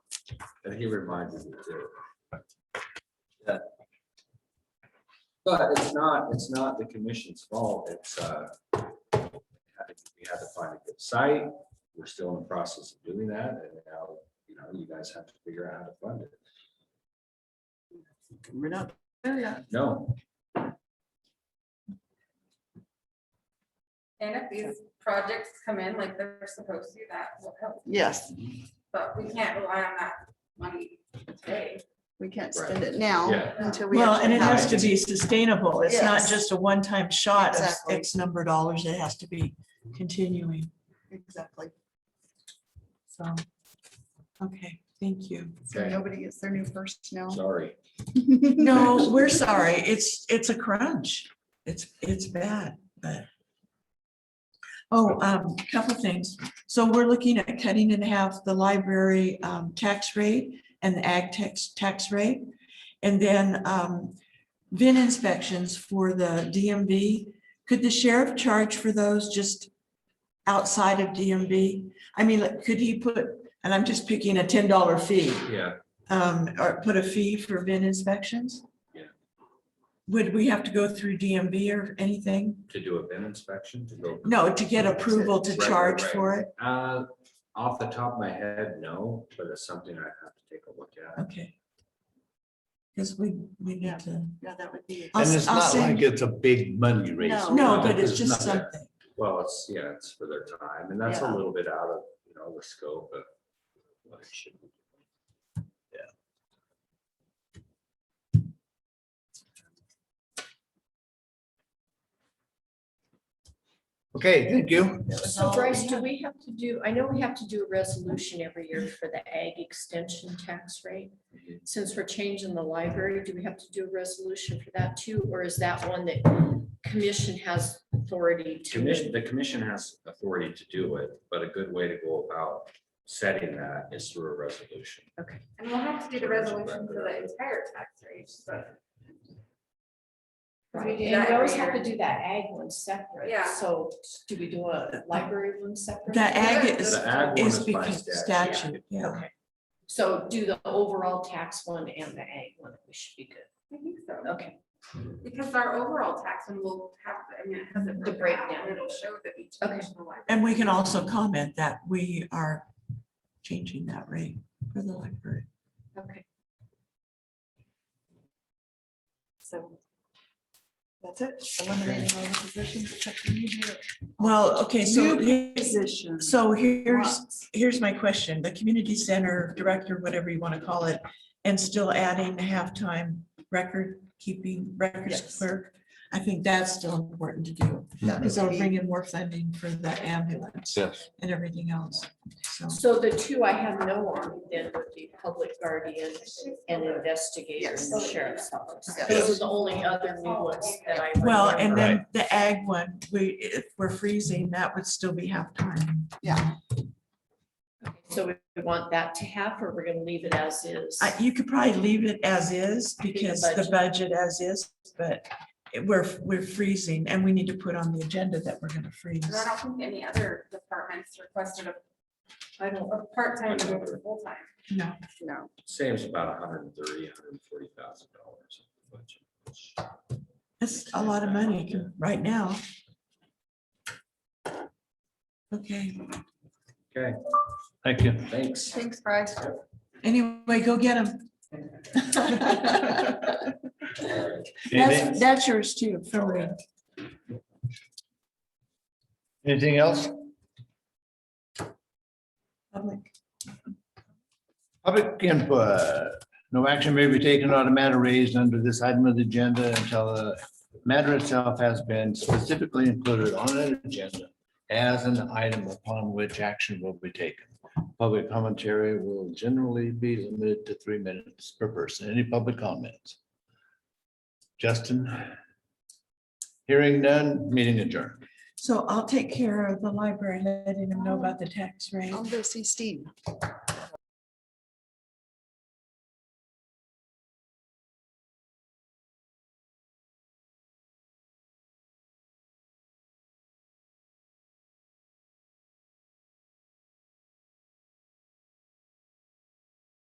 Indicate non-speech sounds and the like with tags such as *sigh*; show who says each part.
Speaker 1: And he reminds me too. Yeah. But it's not, it's not the commission's fault. It's, uh, we had to find a good site. We're still in the process of doing that and now, you know, you guys have to figure out how to fund it.
Speaker 2: We're not there yet.
Speaker 1: No,
Speaker 3: And if these projects come in like they're supposed to, that will help,
Speaker 2: Yes,
Speaker 3: but we can't rely on that money today.
Speaker 2: we can't spend it now
Speaker 1: yeah,
Speaker 2: until we.
Speaker 4: Well,
Speaker 2: actually
Speaker 4: and it
Speaker 2: have
Speaker 4: has to be sustainable. It's not
Speaker 2: Yes.
Speaker 4: just a one-time shot of
Speaker 2: Exactly.
Speaker 4: X number of dollars. It has to be continuing.
Speaker 2: Exactly.
Speaker 4: So, okay, thank you.
Speaker 2: So
Speaker 1: Okay.
Speaker 2: nobody gets their new first *laughs* now.
Speaker 1: sorry.
Speaker 4: No, we're sorry. It's, it's a crunch. It's, it's bad, but. Oh, um, couple things. So we're looking at cutting in half the library, um, tax rate and the ag tax, tax rate. And then, um, VIN inspections for the DMV. Could the sheriff charge for those just outside of DMV? I mean, like, could he put, and I'm just picking a ten dollar fee
Speaker 1: Yeah,
Speaker 4: um, or put a fee for VIN inspections?
Speaker 1: Yeah.
Speaker 4: Would we have to go through DMV or anything?
Speaker 1: to do a bin inspection, to go.
Speaker 4: No, to get approval to
Speaker 1: Right, right,
Speaker 4: charge
Speaker 1: right.
Speaker 4: for it?
Speaker 1: Uh, off the top of my head, no, but it's something I have to take a look at.
Speaker 4: Okay. Because we, we need to.
Speaker 2: Yeah, that would be.
Speaker 4: I'll
Speaker 5: And
Speaker 4: s-
Speaker 5: it's
Speaker 4: I'll
Speaker 5: not
Speaker 4: send-
Speaker 5: like it's a big money raise.
Speaker 2: No.
Speaker 4: No, but it's
Speaker 5: There's
Speaker 4: just
Speaker 5: nothing.
Speaker 4: something.
Speaker 1: Well, it's, yeah, it's for their time and that's a
Speaker 2: Yeah.
Speaker 1: little bit out of, you know, the scope of what it should be.
Speaker 5: Okay, thank you.
Speaker 6: So Bryce, do we have to do, I know we have to do a resolution every year for the ag extension tax rate. Since we're changing the library, do we have to do a resolution for that too, or is that one that commission has authority
Speaker 1: Commission, the
Speaker 6: to?
Speaker 1: commission has authority to do it, but a good way to go about setting that is through a resolution.
Speaker 3: And we'll have to do the resolution for the entire tax rate, so.
Speaker 6: Right, and we always have to do that ag one separate.
Speaker 3: Yeah.
Speaker 6: So do we do a library one separate?
Speaker 4: The ag is,
Speaker 1: The ag one
Speaker 4: is
Speaker 1: is by
Speaker 4: because
Speaker 1: statute.
Speaker 4: statute, yeah.
Speaker 6: Okay. So do the overall tax one and the ag one, we should be good.
Speaker 3: I think so,
Speaker 6: Okay,
Speaker 3: because our overall tax one will have, I mean, it has it
Speaker 6: The
Speaker 3: broken out,
Speaker 6: breakdown.
Speaker 3: and It'll show that each.
Speaker 6: Okay.
Speaker 3: national library-
Speaker 4: And we can also comment that we are changing that rate for the library.
Speaker 6: okay.
Speaker 2: So. That's it. Eliminating all the positions except for new
Speaker 4: Well, okay, so, here-
Speaker 2: positions.
Speaker 4: so here's,
Speaker 2: Lots.
Speaker 4: here's my question, the community center director, whatever you want to call it, and still adding the halftime record keeping records
Speaker 2: Yes.
Speaker 4: clerk. I think that's still important to do,
Speaker 2: That
Speaker 4: because it'll
Speaker 2: would
Speaker 4: bring
Speaker 2: be-
Speaker 4: in more funding for the ambulance
Speaker 5: Yes.
Speaker 4: and everything else. So,
Speaker 6: So the two I have no on then would be public guardian and investigator in the
Speaker 2: Yes.
Speaker 6: sheriff's office.
Speaker 2: Yes.
Speaker 6: Those are the only other new ones that I.
Speaker 4: well, and
Speaker 6: remember.
Speaker 4: then the ag one, we, if we're freezing, that would still be halftime.
Speaker 2: Yeah,
Speaker 6: So we want that to have, or we're gonna leave it as is?
Speaker 4: I- You could probably leave it as is because the budget as is, but it- we're, we're freezing and we need to put on the agenda that we're gonna freeze.
Speaker 3: And I don't think any other departments requested a,
Speaker 6: I don't,
Speaker 3: a part-time to go to full-time.
Speaker 4: No.
Speaker 2: no.
Speaker 1: Saves about 130, 140,000 dollars. budget.
Speaker 4: That's a lot of money to- right now. Okay,
Speaker 1: Okay,
Speaker 5: Thank you.
Speaker 1: thanks.
Speaker 2: Thanks, Bryce.
Speaker 4: anyway, go get them.
Speaker 5: Anything
Speaker 4: That's, that's yours too, for real.
Speaker 5: anything else?
Speaker 4: Public.
Speaker 5: Public input. No action may be taken on a matter raised under this item of the agenda until the matter itself has been specifically included on an agenda as an item upon which action will be taken. Public commentary will generally be limited to three minutes per person. Any public comments? Justin? Hearing none, meeting adjourned.
Speaker 4: So I'll take care of the library, letting them know about the tax rate.
Speaker 2: I'll go see Steve.